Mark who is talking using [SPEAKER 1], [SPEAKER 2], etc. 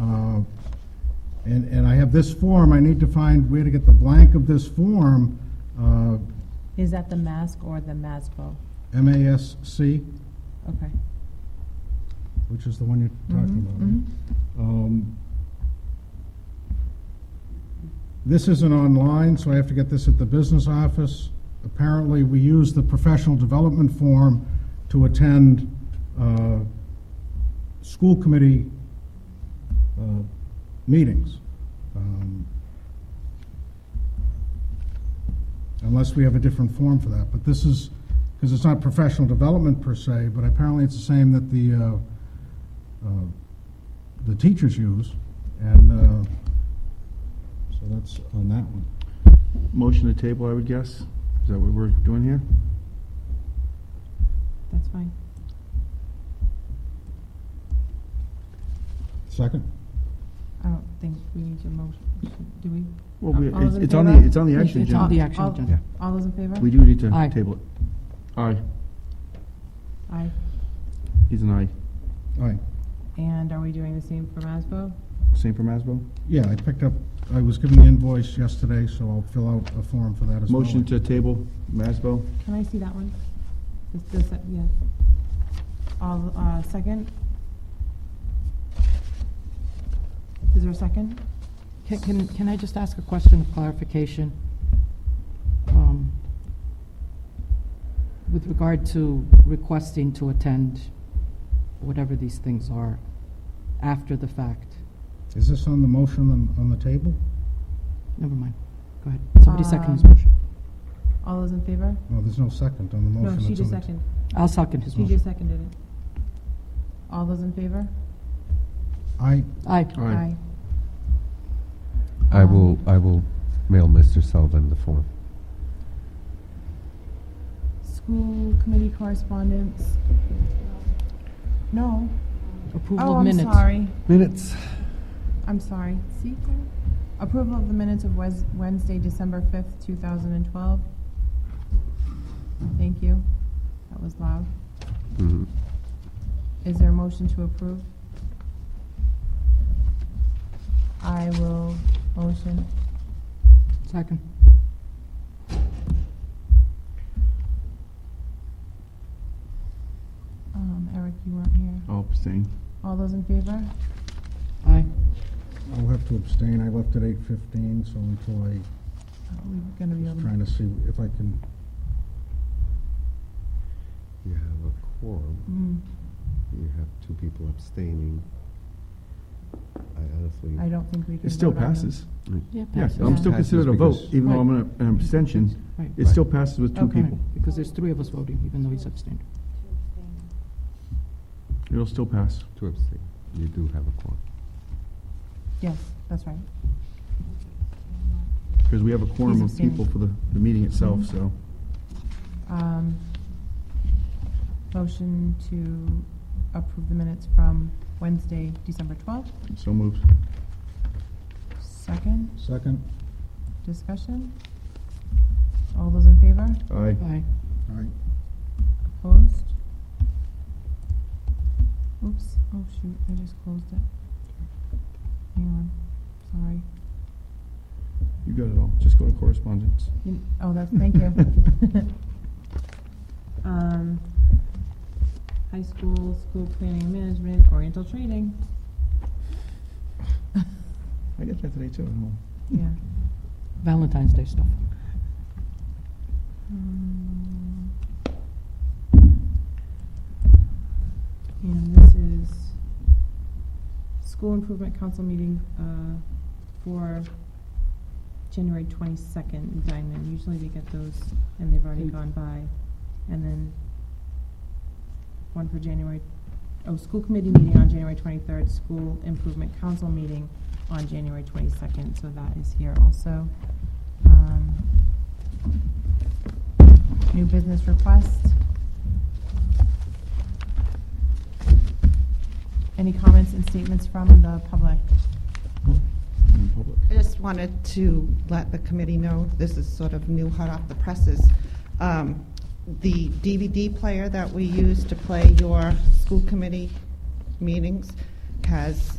[SPEAKER 1] Uh, And, and I have this form, I need to find where to get the blank of this form, uh,
[SPEAKER 2] Is that the mask or the MASBO?
[SPEAKER 1] MASC,
[SPEAKER 2] Okay. Mm-hmm.
[SPEAKER 1] which is the one you're talking about. right? Um, This isn't online, so I have to get this at the business office. Apparently, we use the professional development form to attend uh, school committee uh, meetings. Um, Unless we have a different form for that, but this is, because it's not professional development per se, but apparently it's the same that the uh, uh, the teachers use, and uh, so that's on that one.
[SPEAKER 3] Motion to table, I would guess? Is that what we're doing here?
[SPEAKER 2] That's fine.
[SPEAKER 1] Second?
[SPEAKER 2] I don't think we need your motion, do we?
[SPEAKER 3] Well, we,
[SPEAKER 2] All those
[SPEAKER 3] it's
[SPEAKER 2] in
[SPEAKER 3] it's on
[SPEAKER 2] favor?
[SPEAKER 3] the, it's on the action
[SPEAKER 4] It's on
[SPEAKER 3] agenda.
[SPEAKER 4] the action
[SPEAKER 2] All-
[SPEAKER 4] agenda.
[SPEAKER 2] All those in favor?
[SPEAKER 3] We do need to
[SPEAKER 4] Aye.
[SPEAKER 3] table it. Aye,
[SPEAKER 2] Aye.
[SPEAKER 3] he's an aye.
[SPEAKER 1] All right.
[SPEAKER 2] And are we doing the same for MASBO?
[SPEAKER 3] Same for Masbo?
[SPEAKER 1] Yeah, I picked up, I was given the invoice yesterday, so I'll fill out a form for that as well.
[SPEAKER 3] Motion to table, Masbo?
[SPEAKER 2] Can I see that one? This, this, uh, yes. All, uh, second? Is there a second?
[SPEAKER 4] Can- Can, can I just ask a question of clarification? Um, With regard to requesting to attend whatever these things are after the fact?
[SPEAKER 1] Is this on the motion on, on the table?
[SPEAKER 4] Never mind, go ahead. Somebody second his
[SPEAKER 2] Um,
[SPEAKER 4] motion.
[SPEAKER 2] All those in favor?
[SPEAKER 1] No, there's no second on the motion.
[SPEAKER 2] No, she
[SPEAKER 1] that's on
[SPEAKER 2] just
[SPEAKER 1] the t-
[SPEAKER 2] seconded.
[SPEAKER 4] I'll second his
[SPEAKER 2] She just
[SPEAKER 4] motion.
[SPEAKER 2] seconded it. All those in favor?
[SPEAKER 1] I,
[SPEAKER 4] Aye.
[SPEAKER 3] Aye.
[SPEAKER 5] I will, I will mail Mr. Sullivan the form.
[SPEAKER 2] School committee correspondence? No.
[SPEAKER 4] Approval
[SPEAKER 2] Oh,
[SPEAKER 4] of
[SPEAKER 2] I'm
[SPEAKER 4] minutes.
[SPEAKER 2] sorry.
[SPEAKER 5] Minutes.
[SPEAKER 2] I'm sorry. See? Karen? Approval of the minutes of Wes- Wednesday, December 5th, 2012. Thank you. That was loud.
[SPEAKER 5] Mhm.
[SPEAKER 2] Is there a motion to approve? I will motion.
[SPEAKER 4] Second.
[SPEAKER 2] Um, Eric, you weren't here.
[SPEAKER 3] I'll abstain.
[SPEAKER 2] All those in favor?
[SPEAKER 4] Aye.
[SPEAKER 1] I'll have to abstain, I left at eight fifteen, so until I,
[SPEAKER 2] Oh, we We're gonna be able
[SPEAKER 1] trying
[SPEAKER 2] to.
[SPEAKER 1] to see if I can,
[SPEAKER 5] You have a quorum.
[SPEAKER 2] Mm,
[SPEAKER 5] You have two people abstaining. I honestly. Mm,
[SPEAKER 2] I don't think we can.
[SPEAKER 3] It still
[SPEAKER 2] vote on them.
[SPEAKER 3] passes.
[SPEAKER 4] Yeah,
[SPEAKER 3] Yeah,
[SPEAKER 4] passes.
[SPEAKER 3] I'm still
[SPEAKER 5] Passes
[SPEAKER 3] considered a vote,
[SPEAKER 5] because-
[SPEAKER 3] even though I'm an an abstention. It still
[SPEAKER 5] Right.
[SPEAKER 3] passes with two
[SPEAKER 2] Okay.
[SPEAKER 3] people.
[SPEAKER 4] Because there's three of us voting, even though he's abstained.
[SPEAKER 3] It'll still pass.
[SPEAKER 5] Two abstain. You do have a quorum.
[SPEAKER 2] Yes, that's right.
[SPEAKER 3] Because we have a quorum
[SPEAKER 2] He's
[SPEAKER 3] of people
[SPEAKER 2] abstaining.
[SPEAKER 3] for the, the meeting itself, so.
[SPEAKER 2] Um, Motion to approve the minutes from Wednesday, December 12th.
[SPEAKER 3] So moved.
[SPEAKER 2] Second,
[SPEAKER 1] second?
[SPEAKER 2] discussion. All those in favor?
[SPEAKER 3] Aye.
[SPEAKER 4] Aye.
[SPEAKER 1] All right.
[SPEAKER 2] Opposed? Oops, oh shoot, I just closed it. Hang on, sorry.
[SPEAKER 3] You got it all. Just go to correspondence.
[SPEAKER 2] You- Oh, that's, thank you. Um, High school, school planning and management, oriental training,
[SPEAKER 3] I got that today too. at home.
[SPEAKER 2] yeah.
[SPEAKER 4] Valentine's Day stuff.
[SPEAKER 2] Um, And this is school improvement council meeting uh, for January 22nd in Diamond. Usually we get those and they've already
[SPEAKER 4] Mm.
[SPEAKER 2] gone by. And then one for January, oh, school committee meeting on January 23rd, school improvement council meeting on January 22nd, so that is here also. Um, New business request. Any comments and statements from the public?
[SPEAKER 3] In public.
[SPEAKER 6] I just wanted to let the committee know, this is sort of new hot off the presses. Um, The DVD player that we use to play your school committee meetings has